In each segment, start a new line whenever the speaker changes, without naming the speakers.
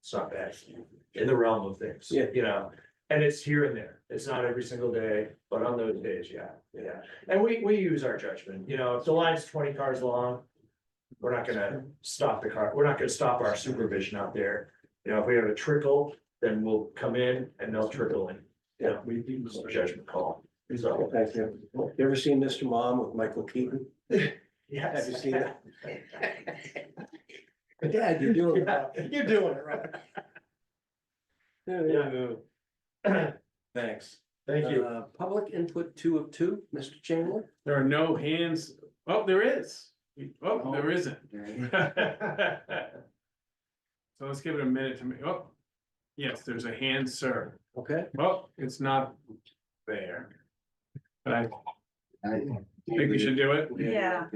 It's not bad in the realm of things.
Yeah.
You know, and it's here and there. It's not every single day, but on those days, yeah, yeah. And we, we use our judgment, you know, if the line's twenty cars long. We're not gonna stop the car. We're not gonna stop our supervision out there. You know, if we have a trickle, then we'll come in and they'll trickle in. You know, we do a judgment call. So,
Thank you. You ever seen Mr. Mom with Michael Keaton? Have you
yes.
seen that? Dad, you're doing it. right. You're doing it right. Yeah, yeah. Thanks.
Thank you.
Uh, Public input two of two, Mr. Chamberlain?
There are no hands, oh, there is, oh, there isn't. So let's give it a minute to me, oh, yes, there's a hand, sir,
Okay,
well, it's not there. But I think we should do it,
Yeah.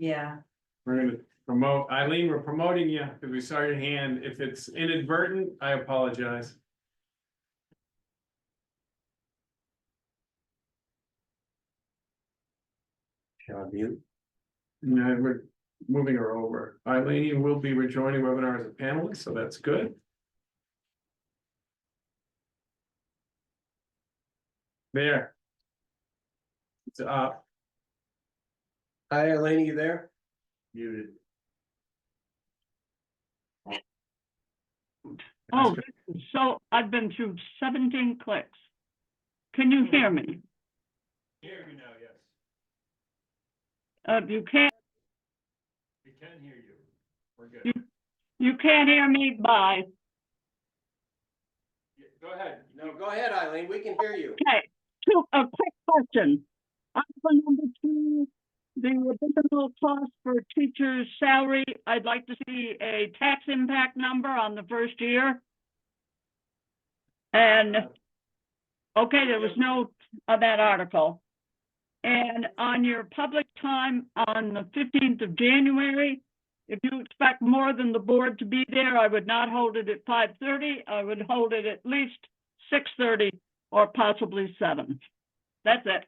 Yeah,
we're gonna promote, Eileen, we're promoting you, because we saw your hand, if it's inadvertent, I apologize.
shall I mute?
No, we're moving her over. Eileen will be rejoining webinar as a panelist, so that's good. There. It's up,
Hi, Elaine, you there?
muted.
Oh, this is so I've been through seventeen clicks. Can you hear me?
Hear you now, yes.
Uh, you can't,
We can hear you. We're good.
you can't hear me, bye.
Go ahead.
No, go ahead, Eileen, we can hear you.
Okay, two, a quick question. Article number two, the additional cost for teacher's salary, I'd like to see a tax impact number on the first year. And, okay, there was no on that article. And on your public time on the fifteenth of January, if you expect more than the board to be there, I would not hold it at five thirty. I would hold it at least six thirty or possibly seven. That's it.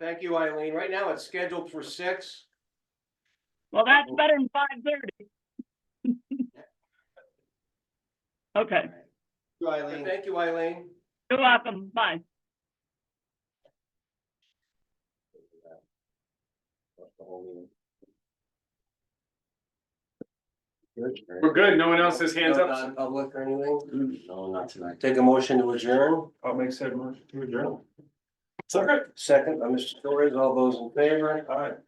Thank you, Eileen. Right now it's scheduled for six.
Well, that's better than five thirty. Okay,
Eileen. Thank you, Eileen.
you're welcome. Bye.
We're good. No one else has hands
No
up.
Non-public or anything? No, not tonight. Take a motion to adjourn.
I'll make said motion. to adjourn.
Second by Mr. Torres, all those in favor? Aye.